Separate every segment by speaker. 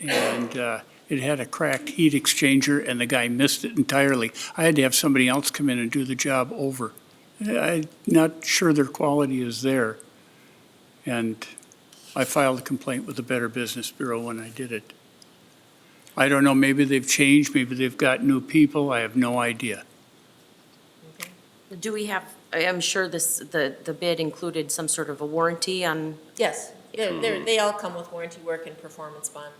Speaker 1: and uh, it had a cracked heat exchanger, and the guy missed it entirely. I had to have somebody else come in and do the job over. I'm not sure their quality is there. And I filed a complaint with the Better Business Bureau when I did it. I don't know, maybe they've changed, maybe they've got new people, I have no idea.
Speaker 2: Do we have, I- I'm sure this, the, the bid included some sort of a warranty on,
Speaker 3: Yes, they're, they're- they all come with warranty work and performance bond,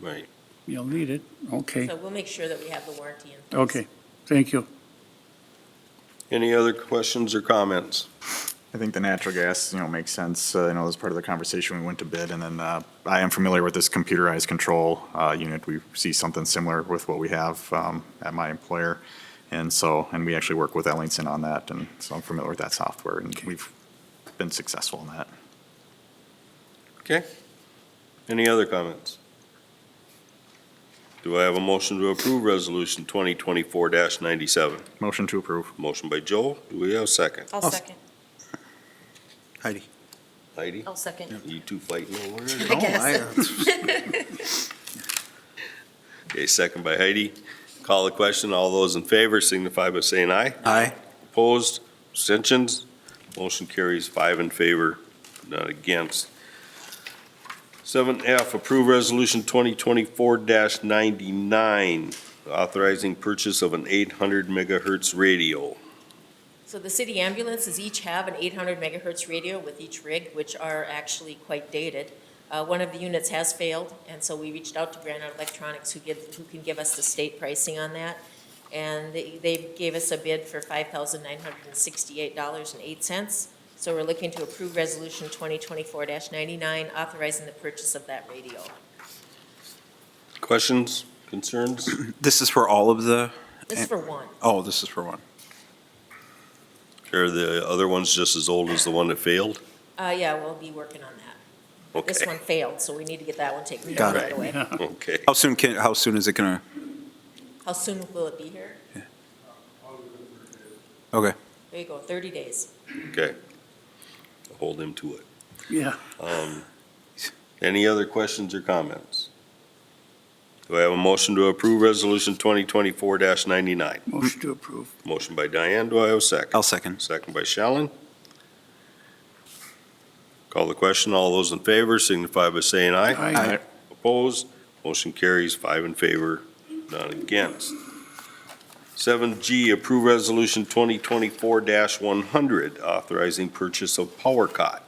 Speaker 4: Right.
Speaker 1: You'll need it, okay,
Speaker 3: so we'll make sure that we have the warranty in place.
Speaker 1: okay, thank you.
Speaker 4: Any other questions or comments?
Speaker 5: I think the natural gas, you know, makes sense. Uh, I know as part of the conversation, we went to bid, and then uh, I am familiar with this computerized control uh, unit. We see something similar with what we have um, at my employer. And so, and we actually work with Ellingson on that, and so I'm familiar with that software, and we've been successful in that.
Speaker 4: Okay. Any other comments? Do I have a motion to approve Resolution 2024-97?
Speaker 5: Motion to approve.
Speaker 4: Motion by Joel, do we have a second?
Speaker 3: I'll second.
Speaker 6: Heidi.
Speaker 4: Heidi,
Speaker 3: I'll second.
Speaker 4: you two fighting over it?
Speaker 3: I guess.
Speaker 4: Okay, second by Heidi. Call the question. All those in favor signify by saying aye.
Speaker 6: Aye.
Speaker 4: Opposed, abstentions? Motion carries five in favor, none against. Seven F, approve resolution twenty twenty-four ninety-nine, authorizing purchase of an eight hundred megahertz radio.
Speaker 3: So the city ambulances each have an 800 megahertz radio with each rig, which are actually quite dated. Uh, One of the units has failed, and so we reached out to Granite Electronics, who give, who can give us the state pricing on that. And they they gave us a bid for $5,968.08. So we're looking to approve Resolution 2024-99, authorizing the purchase of that radio.
Speaker 4: Questions, concerns?
Speaker 6: This is for all of the,
Speaker 3: This is for one.
Speaker 6: oh, this is for one.
Speaker 4: Are the other ones just as old as the one that failed?
Speaker 3: Uh, Yeah, we'll be working on that. This
Speaker 4: Okay,
Speaker 3: one failed, so we need to get that one taken care
Speaker 6: Got
Speaker 3: of right
Speaker 6: it.
Speaker 3: away.
Speaker 4: okay.
Speaker 6: How soon can, how soon is it gonna,
Speaker 3: How soon will it be here?
Speaker 6: okay.
Speaker 3: There you go, 30 days.
Speaker 4: Okay. Hold him to it.
Speaker 1: Yeah,
Speaker 4: Um, Any other questions or comments? Do I have a motion to approve Resolution 2024-99?
Speaker 1: motion to approve.
Speaker 4: Motion by Diane, do I have a second?
Speaker 6: I'll second.
Speaker 4: Second by Shallen. Call the question, all those in favor signify by saying aye.
Speaker 1: Aye.
Speaker 4: Opposed, motion carries five in favor, none against. 7G, approve Resolution 2024-100, authorizing purchase of power cot.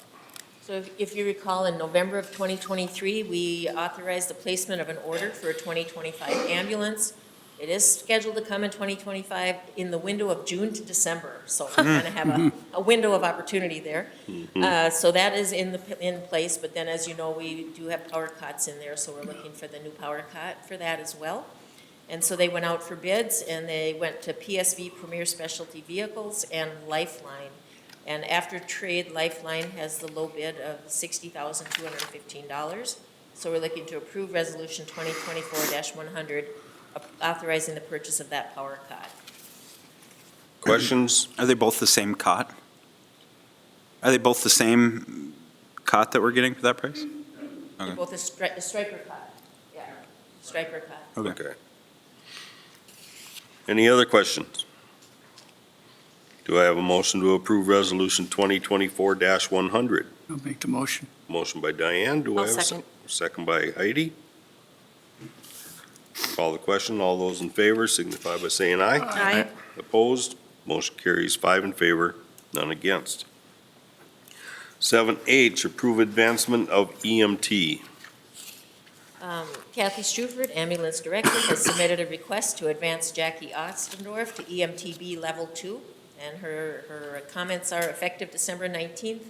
Speaker 3: So if- if you recall, in November of 2023, we authorized the placement of an order for a 2025 ambulance. It is scheduled to come in 2025 in the window of June to December, so we kind of have a, a window of opportunity there. Uh, So that is in the, in place, but then, as you know, we do have power cots in there, so we're looking for the new power cot for that as well. And so they went out for bids, and they went to PSV Premier Specialty Vehicles and Lifeline. And after trade, Lifeline has the low bid of $60,215. So we're looking to approve Resolution 2024-100, authorizing the purchase of that power cot.
Speaker 4: Questions?
Speaker 6: Are they both the same cot? Are they both the same cot that we're getting for that price? Okay.
Speaker 3: Both a stri- a striker cot, yeah, striker cot.
Speaker 6: Okay.
Speaker 4: Okay. Any other questions? Do I have a motion to approve Resolution 2024-100?
Speaker 1: I'll make the motion.
Speaker 4: Motion by Diane, do I
Speaker 2: I'll
Speaker 4: have a second? Second by Heidi. Call the question, all those in favor signify by saying aye.
Speaker 2: Aye.
Speaker 4: Opposed, motion carries five in favor, none against. 7H, approve advancement of E EMT.
Speaker 3: Um, Kathy Struford, ambulance director, has submitted a request to advance Jackie Ostendorf to E EMTB Level 2, and her, her comments are effective December 19th.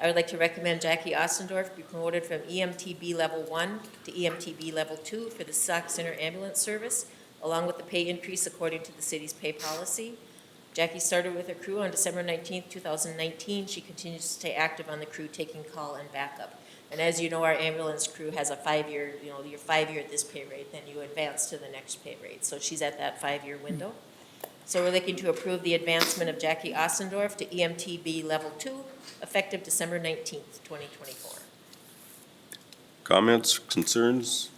Speaker 3: I would like to recommend Jackie Ostendorf be promoted from E EMTB Level 1 to E EMTB Level 2 for the Sauk Center Ambulance Service, along with the pay increase according to the city's pay policy. Jackie started with her crew on December 19th, 2019. She continues to stay active on the crew, taking call and backup. And as you know, our ambulance crew has a five-year, you know, you're five-year at this pay rate, then you advance to the next pay rate. So she's at that five-year window. So we're looking to approve the advancement of Jackie Ostendorf to E EMTB Level Two, effective December nineteenth, twenty twenty-four.
Speaker 4: Comments, concerns?